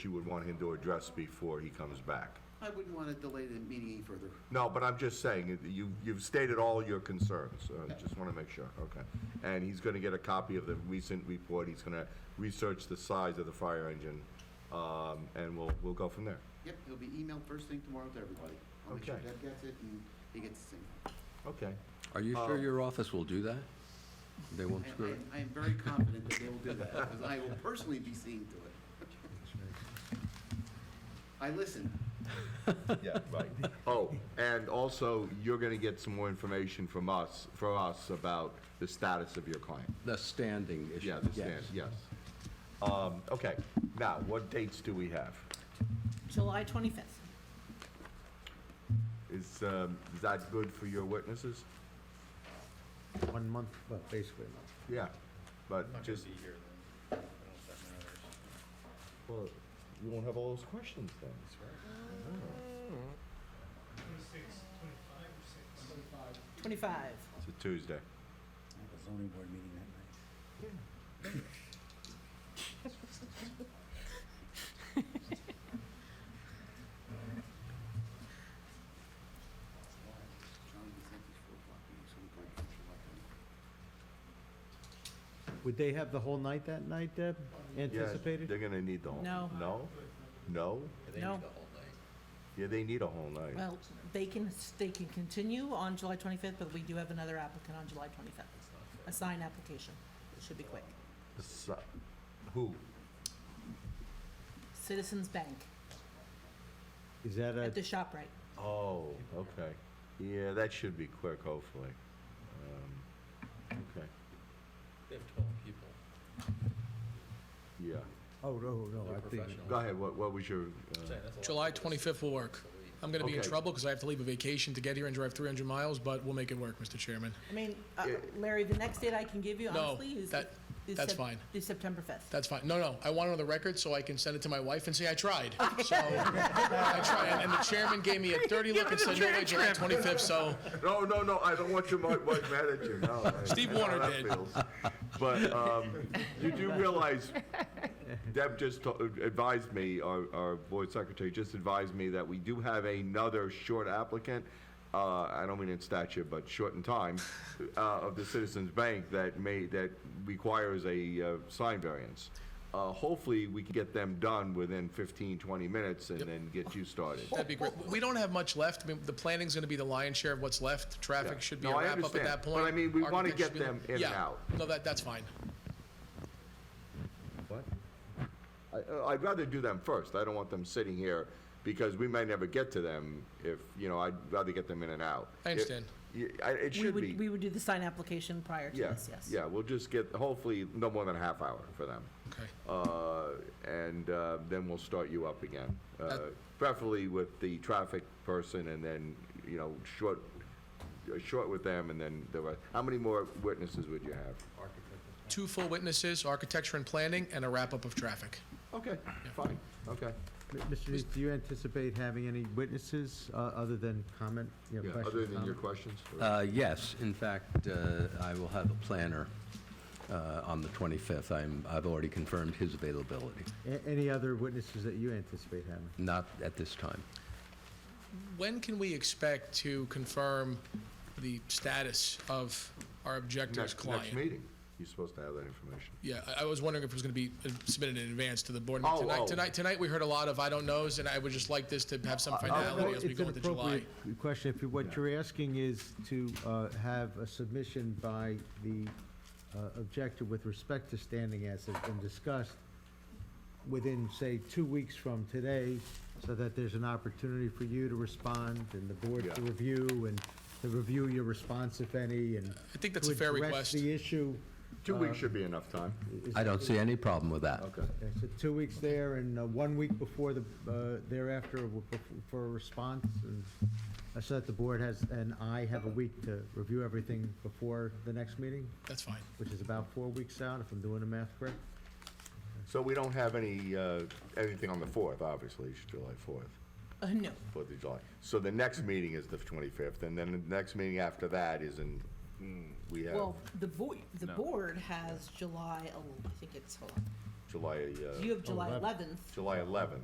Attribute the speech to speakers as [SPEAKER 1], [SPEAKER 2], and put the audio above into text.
[SPEAKER 1] she would want him to address before he comes back.
[SPEAKER 2] I wouldn't want to delay the meeting any further.
[SPEAKER 1] No, but I'm just saying, you, you've stated all your concerns, so I just want to make sure, okay. And he's going to get a copy of the recent report, he's going to research the size of the fire engine, um, and we'll, we'll go from there.
[SPEAKER 2] Yep, it'll be emailed first thing tomorrow to everybody. I'll make sure
[SPEAKER 1] Okay.
[SPEAKER 2] Deb gets it and he gets the same.
[SPEAKER 1] Okay.
[SPEAKER 3] Are you
[SPEAKER 1] Oh.
[SPEAKER 3] sure your office will do that? They won't
[SPEAKER 2] I-
[SPEAKER 3] screw it?
[SPEAKER 2] I, I am very confident that they will do that, because I will personally be seeing to it. I listen.
[SPEAKER 1] Yeah, right. Oh, and also, you're going to get some more information from us, for us about the status of your client.
[SPEAKER 3] The standing issue.
[SPEAKER 1] Yeah, the stand, yes. Um, Okay, now, what dates do we have?
[SPEAKER 4] July 25th.
[SPEAKER 1] Is, um, is that good for your witnesses?
[SPEAKER 5] One month, well, basically a
[SPEAKER 1] Yeah, but just,
[SPEAKER 6] here then. I don't know if that matters.
[SPEAKER 1] well, you won't have all those questions then. Oh. That's
[SPEAKER 7] Twenty-six, twenty-five or six?
[SPEAKER 4] 25.
[SPEAKER 1] It's a Tuesday.
[SPEAKER 2] zoning board meeting that night.
[SPEAKER 5] month. Would they have the whole night that night, Deb,
[SPEAKER 1] Yeah,
[SPEAKER 5] anticipated?
[SPEAKER 1] They're gonna need the whole.
[SPEAKER 4] No.
[SPEAKER 1] No? No?
[SPEAKER 4] No,
[SPEAKER 1] Yeah, they need a whole night.
[SPEAKER 4] well, they can, they can continue on July 25th, but we do have another applicant on July 25th. A sign application. It should be quick.
[SPEAKER 1] So- Who?
[SPEAKER 4] Citizens Bank
[SPEAKER 5] Is that
[SPEAKER 4] at the
[SPEAKER 5] a,
[SPEAKER 4] ShopRite.
[SPEAKER 1] Oh, okay. Yeah, that should be quick, hopefully. Um, Okay,
[SPEAKER 6] They have twelve people.
[SPEAKER 1] yeah.
[SPEAKER 5] oh, no, no,
[SPEAKER 6] They're
[SPEAKER 5] I think,
[SPEAKER 6] professional.
[SPEAKER 1] Go ahead, what, what was your, uh,
[SPEAKER 6] Saying that's a lot.
[SPEAKER 7] July twenty-fifth will work. I'm gonna be in
[SPEAKER 1] Okay.
[SPEAKER 7] trouble because I have to leave a vacation to get here and drive three hundred miles, but we'll make it work, Mr. Chairman.
[SPEAKER 4] I mean, uh,
[SPEAKER 1] Yeah.
[SPEAKER 4] Larry, the next date I can give you,
[SPEAKER 7] No,
[SPEAKER 4] honestly, is.
[SPEAKER 7] that-
[SPEAKER 4] is
[SPEAKER 7] that's
[SPEAKER 4] Sep-
[SPEAKER 7] fine.
[SPEAKER 4] Is September 5th.
[SPEAKER 7] That's fine. No, no, I want it on the record so I can send it to my wife and say I tried. So, I tried, and the chairman gave me a dirty look and said, no way, July twenty-fifth, so
[SPEAKER 1] no, no, no, I don't want your mi- wife mad at you, no. I-
[SPEAKER 7] Steve
[SPEAKER 1] I know how
[SPEAKER 7] Warner
[SPEAKER 1] that
[SPEAKER 7] did.
[SPEAKER 1] feels. But, um, you do realize, Deb just to- advised me, our, our board secretary just advised me that we do have another short applicant, uh, I don't mean in stature, but short in time, uh, of the Citizens Bank that may, that requires a, uh, sign variance. Uh, hopefully, we can get them done within 15, 20 minutes and then get you started.
[SPEAKER 7] that'd be great. We don't have much left. I mean, the planning's gonna be the lion's share of what's left. Traffic should be
[SPEAKER 1] No,
[SPEAKER 7] a
[SPEAKER 1] I
[SPEAKER 7] wrap-up at
[SPEAKER 1] understand,
[SPEAKER 7] that
[SPEAKER 1] but
[SPEAKER 7] point.
[SPEAKER 1] I mean, we wanna
[SPEAKER 7] Architecture
[SPEAKER 1] get
[SPEAKER 7] should be-
[SPEAKER 1] them in and
[SPEAKER 7] Yeah.
[SPEAKER 1] out.
[SPEAKER 7] No, that, that's fine.
[SPEAKER 1] What? I, I'd rather do them first. I don't want them sitting here because we might never get to them if, you know, I'd rather get them in and out.
[SPEAKER 7] I understand.
[SPEAKER 1] It, y- I- it
[SPEAKER 4] We
[SPEAKER 1] should
[SPEAKER 4] would,
[SPEAKER 1] be.
[SPEAKER 4] we would do the sign application prior to
[SPEAKER 1] Yeah,
[SPEAKER 4] this, yes.
[SPEAKER 1] yeah, we'll just get, hopefully, no more than a half hour for them.
[SPEAKER 7] Okay.
[SPEAKER 1] Uh, and, uh, then we'll start you up again. Uh,
[SPEAKER 7] That-
[SPEAKER 1] preferably with the traffic person and then, you know, short, uh, short with them and then the rest. How many more witnesses would you have?
[SPEAKER 7] two full witnesses, architecture and planning, and a wrap-up of traffic.
[SPEAKER 1] Okay, fine, okay.
[SPEAKER 5] M- Mr. Neese, do you anticipate having any witnesses, uh, other than comment, you know,
[SPEAKER 1] Yeah,
[SPEAKER 5] questions? um,
[SPEAKER 1] other than your
[SPEAKER 5] comment?
[SPEAKER 1] questions? or-
[SPEAKER 3] Uh, Yes, in fact, uh, I will have a planner uh, on the 25th. I'm, I've already confirmed his availability,
[SPEAKER 5] A- Any other witnesses that you anticipate having?
[SPEAKER 3] not at this time.
[SPEAKER 7] When can we expect to confirm the status of our objector's
[SPEAKER 1] Next, next
[SPEAKER 7] client?
[SPEAKER 1] meeting, you're supposed to have that information.
[SPEAKER 7] Yeah, I- I was wondering if it was going to be uh, submitted in advance to the board.
[SPEAKER 1] Oh, oh.
[SPEAKER 7] Tonight, tonight, tonight, we heard a lot of I don't knows, and I would just like this to have
[SPEAKER 1] Uh,
[SPEAKER 7] some finality as we
[SPEAKER 5] It's
[SPEAKER 7] go
[SPEAKER 5] an
[SPEAKER 7] into July.
[SPEAKER 5] appropriate question, if you, what you're asking is to uh, have a submission by the uh, objector with respect to standing as has been discussed within, say, two weeks from today, so that there's an opportunity for you to respond and the board to
[SPEAKER 1] Yeah.
[SPEAKER 5] review and to review your response, if any, and.
[SPEAKER 7] I think that's
[SPEAKER 5] to
[SPEAKER 7] a fair
[SPEAKER 5] Address
[SPEAKER 7] request.
[SPEAKER 5] the issue.
[SPEAKER 1] Two weeks should be enough time.
[SPEAKER 5] Is-
[SPEAKER 3] I don't see any problem with that.
[SPEAKER 1] Uh, Okay.
[SPEAKER 5] Okay, So two weeks there and uh, one week before the, uh, thereafter w- bef- for a response, and uh, so that the board has, and I have a week to review everything before the next meeting,
[SPEAKER 7] That's fine.
[SPEAKER 5] which is about four weeks out, if I'm doing the math correct.
[SPEAKER 1] So we don't have any, uh, anything on the 4th, obviously, it's July 4th,
[SPEAKER 4] Uh, no,
[SPEAKER 1] 4th of July. So the next meeting is the 25th, and then the next meeting after that is in, mm, we have,
[SPEAKER 4] well, the board, the board has July, el- I think it's, hold on, July, uh,
[SPEAKER 1] You have July
[SPEAKER 8] Eleven.
[SPEAKER 1] 11th.
[SPEAKER 4] July 11th.